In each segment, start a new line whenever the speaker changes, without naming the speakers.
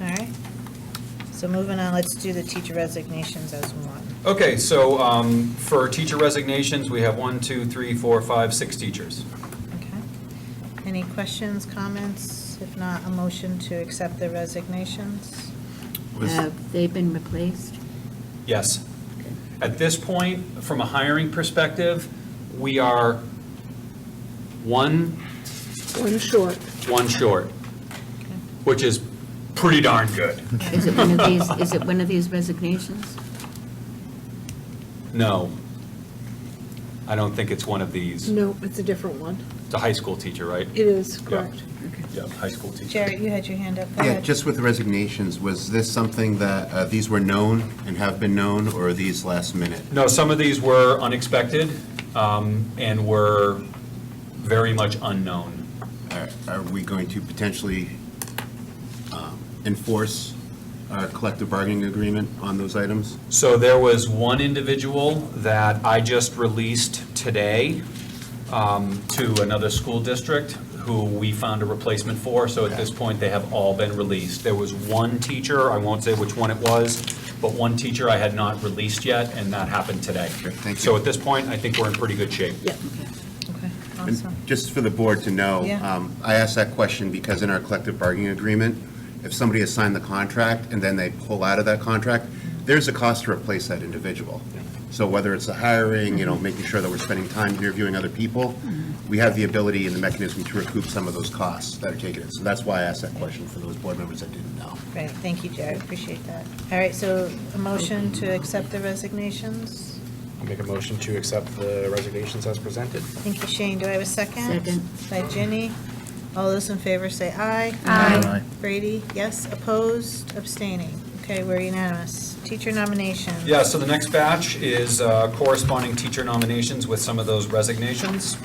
All right. So moving on, let's do the teacher resignations as one.
Okay, so um, for teacher resignations, we have one, two, three, four, five, six teachers.
Okay. Any questions, comments? If not, a motion to accept the resignations?
Was-
Have they been replaced?
Yes. At this point, from a hiring perspective, we are one,
One short.
one short, which is pretty darn good.
Is it one of these, is it one of these resignations?
No, I don't think it's one of these.
No, it's a different one.
It's a high school teacher, right?
It is, correct.
Yeah, high school teacher.
Jared, you had your hand up. Go
Yeah,
ahead.
just with the resignations, was this something that, uh, these were known and have been known, or are these last minute?
No, some of these were unexpected um, and were very much unknown.
Are- Are we going to potentially um, enforce our collective bargaining agreement on those items?
So there was one individual that I just released today um, to another school district who we found a replacement for, so at this point, they have all been released. There was one teacher, I won't say which one it was, but one teacher I had not released yet, and that happened today.
Okay, thank you.
So at this point, I think we're in pretty good shape.
Yeah.
Okay,
And
awesome.
Just for the board to know,
Yeah.
um, I asked that question because in our collective bargaining agreement, if somebody has signed the contract and then they pull out of that contract, there's a cost to replace that individual. So whether it's the hiring, you know, making sure that we're spending time interviewing other people,
Mm-hmm.
we have the ability and the mechanism to recoup some of those costs that are taken. in. So that's why I asked that question for those board members that didn't know.
Great, thank you, Jared, appreciate that. All right, so a motion to accept the resignations?
I'll Make a motion to accept the resignations as presented.
Thank you, Shane. Do I have a second?
Second.
By Ginny. All those in favor say aye.
Aye.
Aye.
Brady, yes. Opposed, abstaining. Okay, we're unanimous. Teacher nomination.
Yeah, so the next batch is uh, corresponding teacher nominations with some of those resignations.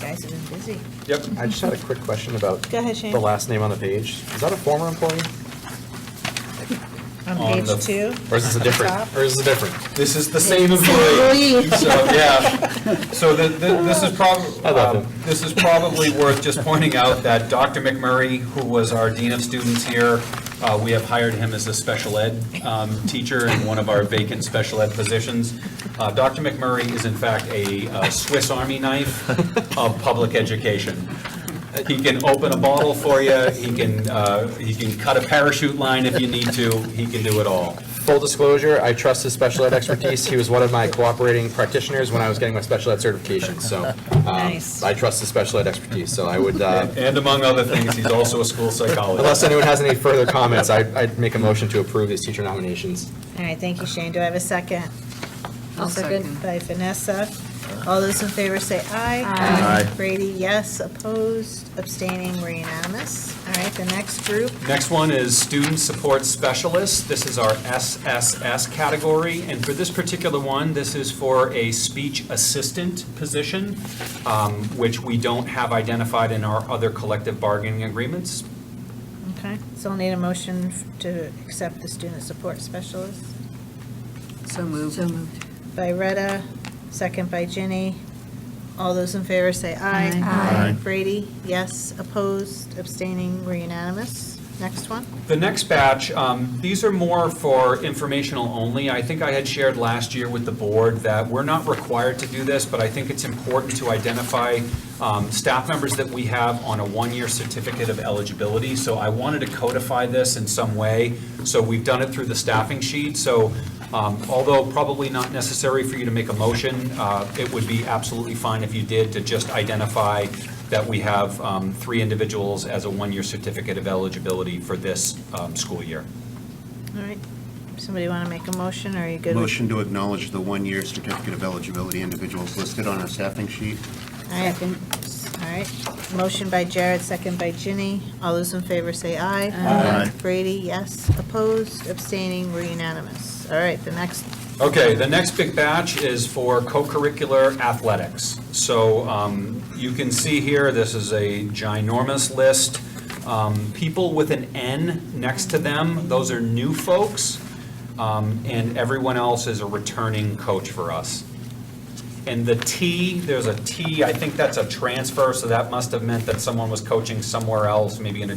Guys have been busy.
Yep.
I just had a quick question about
Go ahead, Shane.
the last name on the page. Is that a former employee?
On
on the-
page two.
Or is this a different, or is this a different?
This is the same employee. So, yeah. So the- the- this is
I love
probably,
him.
this is probably worth just pointing out that Dr. McMurray, who was our Dean of Students here, uh, we have hired him as a special ed um, teacher in one of our vacant special ed positions. Uh, Dr. McMurray is in fact a uh, Swiss Army knife of public education. He can open a bottle for you, he can, uh, he can cut a parachute line if you need to, he can do it all.
Full disclosure, I trust his special ed expertise. He was one of my cooperating practitioners when I was getting my special ed certification, so. um,
Nice.
I trust his special ed expertise, so I would, uh,
And among other things, he's also a school psychologist.
unless anyone has any further comments, I- I'd make a motion to approve these teacher nominations.
All right, thank you, Shane. Do I have a second?
I'll second.
By Vanessa. All those in favor say aye.
Aye. Aye.
Brady, yes. Opposed, abstaining, we're unanimous. All right, the next group.
Next one is student support specialist. This is our SSS category, and for this particular one, this is for a speech assistant position, um, which we don't have identified in our other collective bargaining agreements.
Okay, so I'll need a motion f- to accept the student support specialist.
So moved. So moved.
by Retta, second by Ginny. All those in favor say aye.
Aye.
Aye.
Brady, yes. Opposed, abstaining, we're unanimous. Next one.
The next batch, um, these are more for informational only. I think I had shared last year with the board that we're not required to do this, but I think it's important to identify um, staff members that we have on a one-year certificate of eligibility. So I wanted to codify this in some way. So we've done it through the staffing sheet. So um, although probably not necessary for you to make a motion, uh, it would be absolutely fine if you did to just identify that we have um, three individuals as a one-year certificate of eligibility for this um, school year.
All right. Somebody want to make a motion, or are you good? with-
Motion to acknowledge the one-year certificate of eligibility individuals listed on our staffing sheet.
All right. All right. Motion by Jared, second by Ginny. All those in favor say aye.
Aye. Aye.
Brady, yes. Opposed, abstaining, we're unanimous. All right, the next,
Okay, the next big batch is for co-curricular athletics. So um, you can see here, this is a ginormous list. Um, People with an N next to them, those are new folks, um, and everyone else is a returning coach for us. And the T, there's a T, I think that's a transfer, so that must have meant that someone was coaching somewhere else, maybe in a